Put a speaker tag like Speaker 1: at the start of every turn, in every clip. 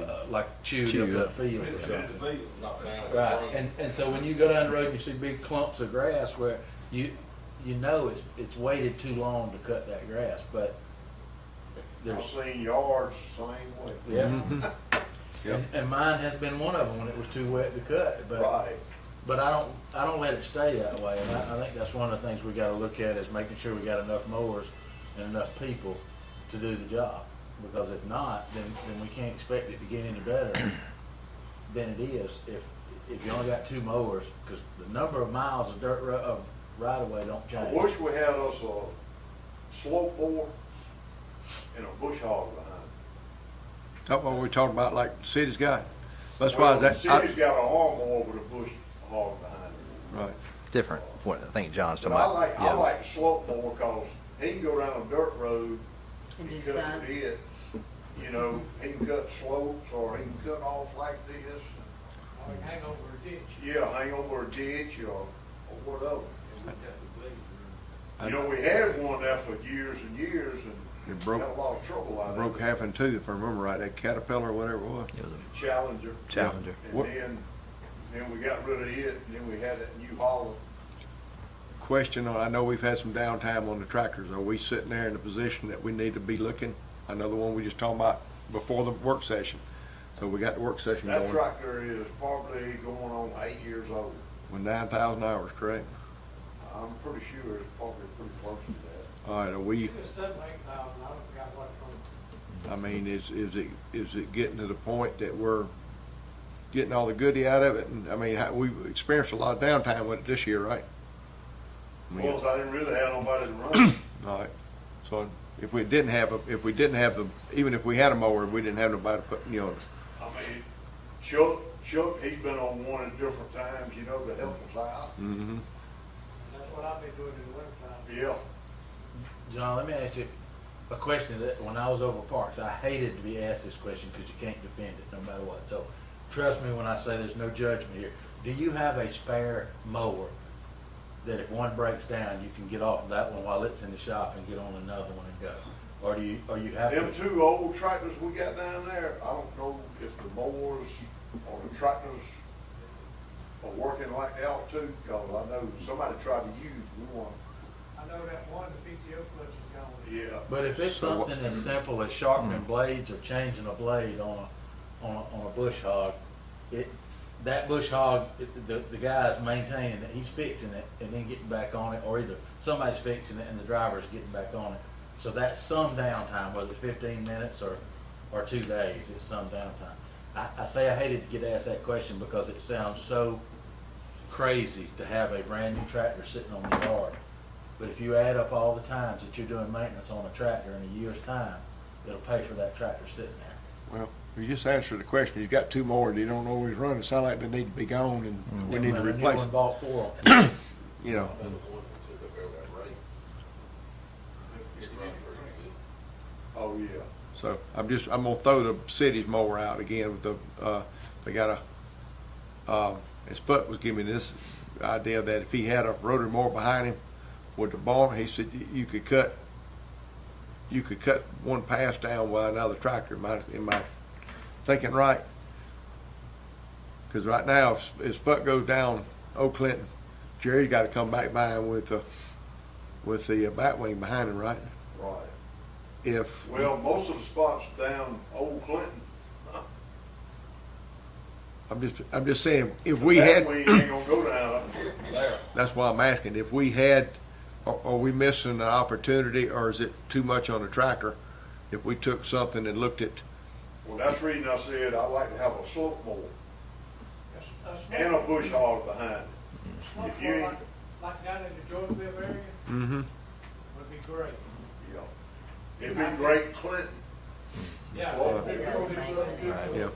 Speaker 1: uh, like chewed,
Speaker 2: Chewed
Speaker 1: up,
Speaker 2: up.
Speaker 1: that field or something. Right,
Speaker 3: Right.
Speaker 1: and, and so when you go down the road and you see big clumps of grass where you, you know it's, it's waited too long to cut that grass, but
Speaker 4: I've
Speaker 1: there's,
Speaker 4: seen yards the same way.
Speaker 1: yeah.
Speaker 2: Yep.
Speaker 1: And, and mine has been one of them when it was too wet to cut, but,
Speaker 4: Right.
Speaker 1: but I don't, I don't let it stay that way. And I, I think that's one of the things we gotta look at is making sure we got enough mowers and enough people to do the job. Because if not, then, then we can't expect it to get any better than it is if, if you only got two mowers, because the number of miles of dirt ro- of right of way don't
Speaker 4: I
Speaker 1: change.
Speaker 4: wish we had us a slope bore and a bush hog behind.
Speaker 2: That's what we're talking about, like the city's got. That's why
Speaker 4: Well,
Speaker 2: that,
Speaker 4: The
Speaker 2: I,
Speaker 4: city's got an arm mower with a bush hog behind it.
Speaker 2: right,
Speaker 3: Different, from what I think John's
Speaker 4: But
Speaker 3: talking
Speaker 4: I
Speaker 3: about.
Speaker 4: like, I
Speaker 3: Yeah.
Speaker 4: like the slope mower because he can go down a dirt road
Speaker 5: And
Speaker 4: He
Speaker 5: do the
Speaker 4: cuts
Speaker 5: sign.
Speaker 4: it in, you know, he can cut slopes or he can cut off like this.
Speaker 6: Like hang over a ditch.
Speaker 4: Yeah, hang over a ditch or, or whatever.
Speaker 6: We got the blade.
Speaker 4: You know, we had one there for years and years and
Speaker 2: It broke-
Speaker 4: had a lot of trouble out of
Speaker 2: broke
Speaker 4: it.
Speaker 2: half in two, if I remember right, that caterpillar or whatever it was.
Speaker 3: It was
Speaker 4: Challenger.
Speaker 3: a challenger.
Speaker 4: And
Speaker 2: What-
Speaker 4: then, then we got rid of it and then we had that new Holland.
Speaker 2: Question, on- I know we've had some downtime on the tractors, are we sitting there in a position that we need to be looking? I know the one we just talked about before the work session, so we got the work session
Speaker 4: That
Speaker 2: going,
Speaker 4: tractor is probably going on eight years old.
Speaker 2: with nine thousand hours, correct?
Speaker 4: I'm pretty sure it's probably pretty close to that.
Speaker 2: All right, are we,
Speaker 6: It was seven, eight thousand, I don't forgot what it was.
Speaker 2: I mean, is, is it, is it getting to the point that we're getting all the goodie out of it? And, I mean, how- we've experienced a lot of downtime with it this year, right? I mean,
Speaker 4: Well, 'cause I didn't really have nobody to run. it.
Speaker 2: All right, so if we didn't have, a- if we didn't have the, even if we had a mower, we didn't have nobody to put, you know,
Speaker 4: I mean, Chuck, Chuck, he's been on one at different times, you know, to help us out.
Speaker 2: mhm.
Speaker 6: That's what I've been doing in the wintertime.
Speaker 4: Yeah,
Speaker 1: John, let me ask you a question that, when I was over Parks, I hated to be asked this question because you can't defend it no matter what. So trust me when I say there's no judgment here. Do you have a spare mower that if one breaks down, you can get off of that one while it's in the shop and get on another one and go? Or do you, or you have
Speaker 4: them
Speaker 1: to?
Speaker 4: two old tractors we got down there, I don't know if the mowers or the tractors are working like that too, cause I know somebody tried to use one.
Speaker 6: I know that one, the PTO clutch is gone.
Speaker 4: Yeah,
Speaker 1: But if it's
Speaker 2: So what- Hmm.
Speaker 1: something as simple as sharpening blades or changing a blade on a, on a, on a bush hog, it, that bush hog, it- the, the guy's maintaining it, he's fixing it and then getting back on it, or either somebody's fixing it and the driver's getting back on it. So that's some downtime, whether it's fifteen minutes or, or two days, it's some downtime. I, I say I hated to get asked that question because it sounds so crazy to have a brand new tractor sitting on the yard. But if you add up all the times that you're doing maintenance on a tractor in a year's time, it'll pay for that tractor sitting there.
Speaker 2: well, you just answered the question, he's got two mowers, he don't always run, it sound like they need to be gone and we
Speaker 1: And
Speaker 2: need
Speaker 1: when
Speaker 2: to
Speaker 1: a new one
Speaker 2: replace them,
Speaker 1: Bought four of 'em.
Speaker 2: you know.
Speaker 4: oh, yeah.
Speaker 2: So I'm just, I'm gonna throw the city's mower out again with the, uh, they got a, um, and Sput was giving me this idea that if he had a rotary mower behind him with the barn, he said y- you could cut, you could cut one pass down with another tractor, am I, am I thinking right? Cause right now, if, if Sput goes down, Old Clinton, Jerry's gotta come back by him with the, with the uh, bat wing behind him, right?
Speaker 4: Right.
Speaker 2: If.
Speaker 4: Well, most of the spots down Old Clinton,
Speaker 2: I'm just, I'm just saying, if we
Speaker 4: that
Speaker 2: had,
Speaker 4: way you ain't gonna go down there.
Speaker 2: that's why I'm asking, if we had, are, are we missing an opportunity or is it too much on the tractor? If we took something and looked at,
Speaker 4: Well, that's the reason I said I'd like to have a slope mower
Speaker 6: A- a slope-
Speaker 4: and a bush hog behind it.
Speaker 6: slope
Speaker 4: if you-
Speaker 6: like- Like down in the Georgeville area
Speaker 2: mm-hmm,
Speaker 6: would be great.
Speaker 4: Yeah. It'd be great Clinton.
Speaker 6: Yeah.
Speaker 4: Slope
Speaker 6: it'd be
Speaker 4: mower.
Speaker 6: really good.
Speaker 2: yeah.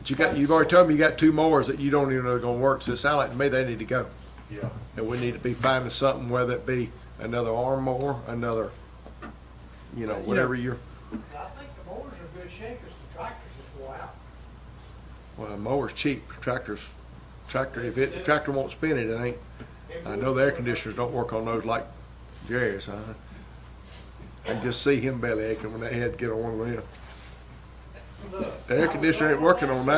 Speaker 2: But you got, you've already told me you got two mowers that you don't even know are gonna work, so it sounds like to me they need to go.
Speaker 4: Yeah.
Speaker 2: And we need to be finding something, whether it be another arm mower, another, you know, whatever you're,
Speaker 6: I think the mowers are in good shape, it's the tractors that go out.
Speaker 2: well, a mower's cheap, tractors, tractor, if it, tractor won't spin it, it ain't. I know the air conditioners don't work on those like Jerry's, huh? I can just see him belly aching when that head get on one of them.
Speaker 6: Look,
Speaker 2: The air conditioner ain't working on that.